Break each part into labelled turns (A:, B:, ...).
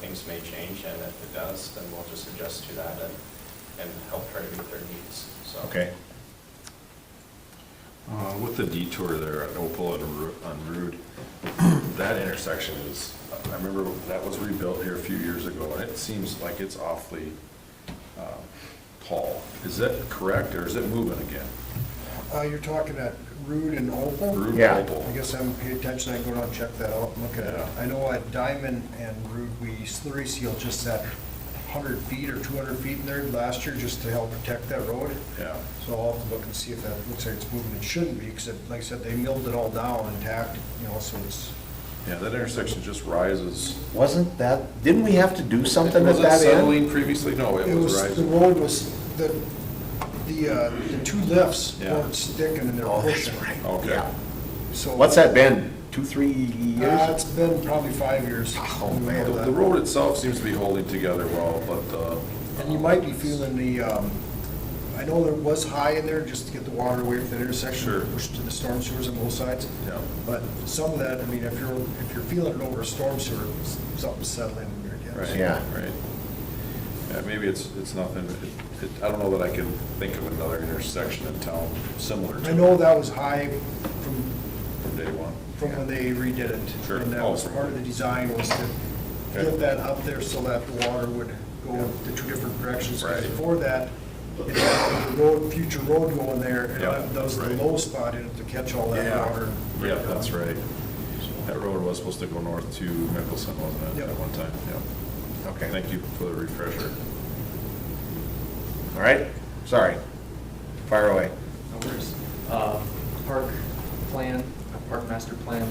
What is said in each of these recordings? A: this may change, and if it does, then we'll just adjust to that and, and help try to meet their needs, so.
B: Okay.
C: Uh, With the detour there at Opal and Ru- on Route, that intersection is, I remember that was rebuilt here a few years ago, and it seems like it's awfully um, tall. Is that correct, or is it moving again?
D: Uh, you're talking at Rude and Opal?
C: Route
B: Yeah.
C: Opal.
D: I guess I haven't paid attention, I can go down and check that out, and look at it.
C: Yeah.
D: I know at Diamond and Rude, we slurry seal just that hundred feet or two hundred feet in there last year, just to help protect that road.
C: Yeah.
D: So I'll have to look and see if that looks like it's moving, it shouldn't be, because like I said, they milled it all down and tacked, it, you know, so it's,
C: Yeah, that intersection just rises.
B: Wasn't that, didn't we have to do something at
C: Was it
B: that end?
C: settling previously? No, it
D: It
C: was
D: was, the
C: rising.
D: road was, the, the, uh, the two lifts
C: Yeah.
D: weren't sticking and they're
B: Oh, that's
D: pushing.
B: right.
C: Okay.
B: Yeah.
D: So-
B: What's that been, two, three
D: Uh,
B: years?
D: it's been probably five years.
B: Oh,
C: The
B: man.
C: the road itself seems to be holding together well, but. uh,
D: And you might be feeling the, um, I know there was high in there just to get the water away from that intersection,
C: Sure.
D: pushed to the storm sewers on both sides.
C: Yeah.
D: But some of that, I mean, if you're, if you're feeling it over a storm sewer, s- something's settling in there again.
C: Right,
B: Yeah.
C: right. Yeah, maybe it's, it's nothing, it- it- I don't know that I can think of another intersection in town similar to.
D: I know that was high from,
C: From day one.
D: from when they redid it.
C: Sure. Oh.
D: And that was part of the design was to
C: Okay.
D: get that up there so that the water would go the two different directions. 'Cause
C: Right.
D: Before that, it had the road, future road going there, and
C: Yeah,
D: that was the
C: right.
D: low spot in it to catch all that
C: Yeah,
D: water.
C: yeah, that's right. That road was supposed to go north to Mickelson, wasn't it, at
D: Yep.
C: one time? Yeah.
B: Okay,
C: Thank you for the refresher.
B: all right, sorry. Fire away.
E: No worries. Uh, Park plan, park master plan,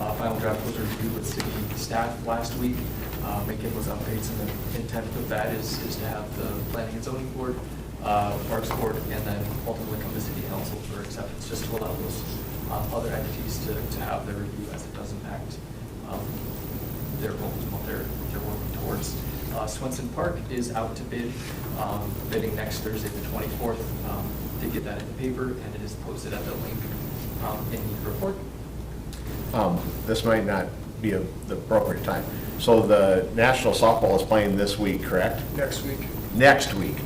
E: uh, final draft was reviewed with city staff last week. Uh, Make it was updates, and the intent of that is, is to have the planning and zoning board, uh, parks board, and then ultimately come to city council for acceptance, just to allow those um, other entities to, to have their review as it does impact um, their goals and what they're, they're working towards. Uh, Swenson Park is out to bid, um, bidding next Thursday, the 24th. Um, Did get that in the paper, and it is posted at the link um, in the report.
B: Um, This might not be a- the appropriate time. So the National Softball is playing this week, correct?
D: Next week,
B: Next week.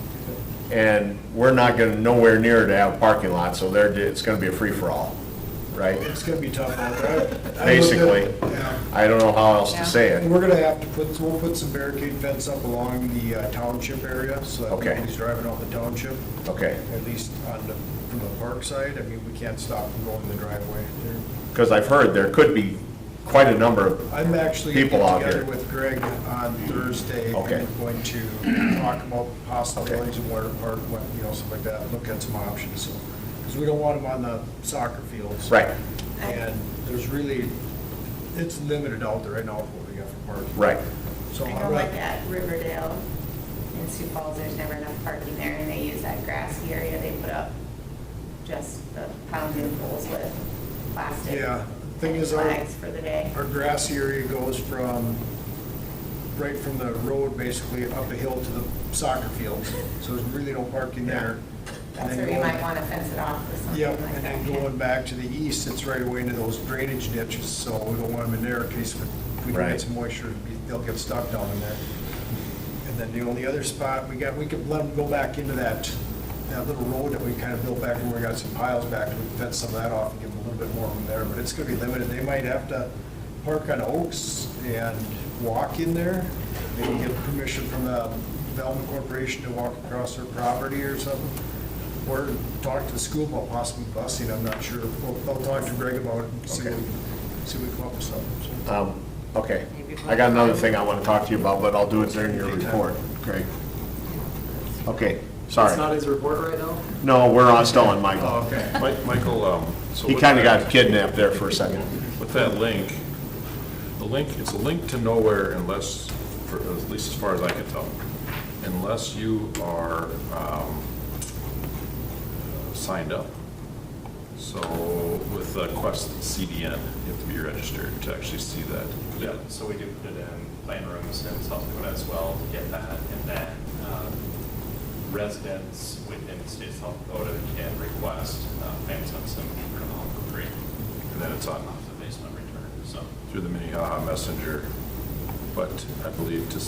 B: And we're not going to, nowhere near to have a parking lot, so there, it's going to be a free-for-all, right?
D: it's gonna be tough out there. I- I looked at-
B: Basically.
D: yeah.
B: I don't know how else to say
D: And
B: it.
D: we're gonna have to put, we'll put some barricade fence up along the uh, township area, so
B: Okay.
D: that nobody's driving off the township,
B: Okay.
D: at least on the, from the park side. I mean, we can't stop them going in the driveway. They're-
B: Because I've heard there could be quite a number of,
D: I'm actually gonna
B: People out
D: get together
B: here.
D: with Greg on Thursday. and
B: Okay.
D: We're going to talk about possibilities of water park, what, you know, stuff like that, look at some options, so. Because we don't want them on the soccer fields.
B: right,
D: And there's really, it's limited out there right now, what we got for parking.
B: right.
D: So
F: I
D: I'm
F: know
D: not-
F: like at Riverdale in Sioux Falls, there's never enough parking there, and they use that grassy area they put up just the pounding poles with plastic.
D: Yeah, thing is, our-
F: Flags for the day.
D: Our grassy area goes from, right from the road basically up a hill to the soccer fields, so there's really no parking there. And
F: That's
D: then
F: where you
D: going-
F: might want to fence it off with something
D: Yep,
F: like that.
D: and then
F: yeah.
D: going back to the east, it's right away into those drainage ditches, so we don't want them in there in case we- we don't
B: Right.
D: get some moisture, they'll get stuck down in there. And then the only other spot, we got, we could let them go back into that, that little road that we kind of built back, where we got some piles back, we can fence some of that off and give them a little bit more room there, but it's gonna be limited, they might have to park on Oaks and walk in there, maybe get permission from the Velma Corporation to walk across their property or something, or talk to the school about possibly busing, I'm not sure, We'll I'll talk to Greg about it, and see what,
B: Okay.
D: we- see what we come up with something. so.
B: Um, Okay. I got another thing I want to talk to you about, but I'll do it during your report, Great. Okay,
E: It's not
B: sorry.
E: his report right now.
B: No, we're on, still on Michael.
E: okay.
C: Mi- Michael, um, so.
B: He
C: with
B: kind of
C: that-
B: got kidnapped there for a second.
C: With that link, the link, it's a link to nowhere unless, for- at least as far as I can tell, unless you are um, signed up. So with uh, Quest CDN, you have to be registered to actually see that.
A: Yeah, so we do put it in plan rooms in South Dakota as well to get that, and then um, residents within the state of South Dakota can request uh, plans on some criminal for free, and then it's on off the basement return, so.
C: Through the Minnehaha Messenger, but I believe to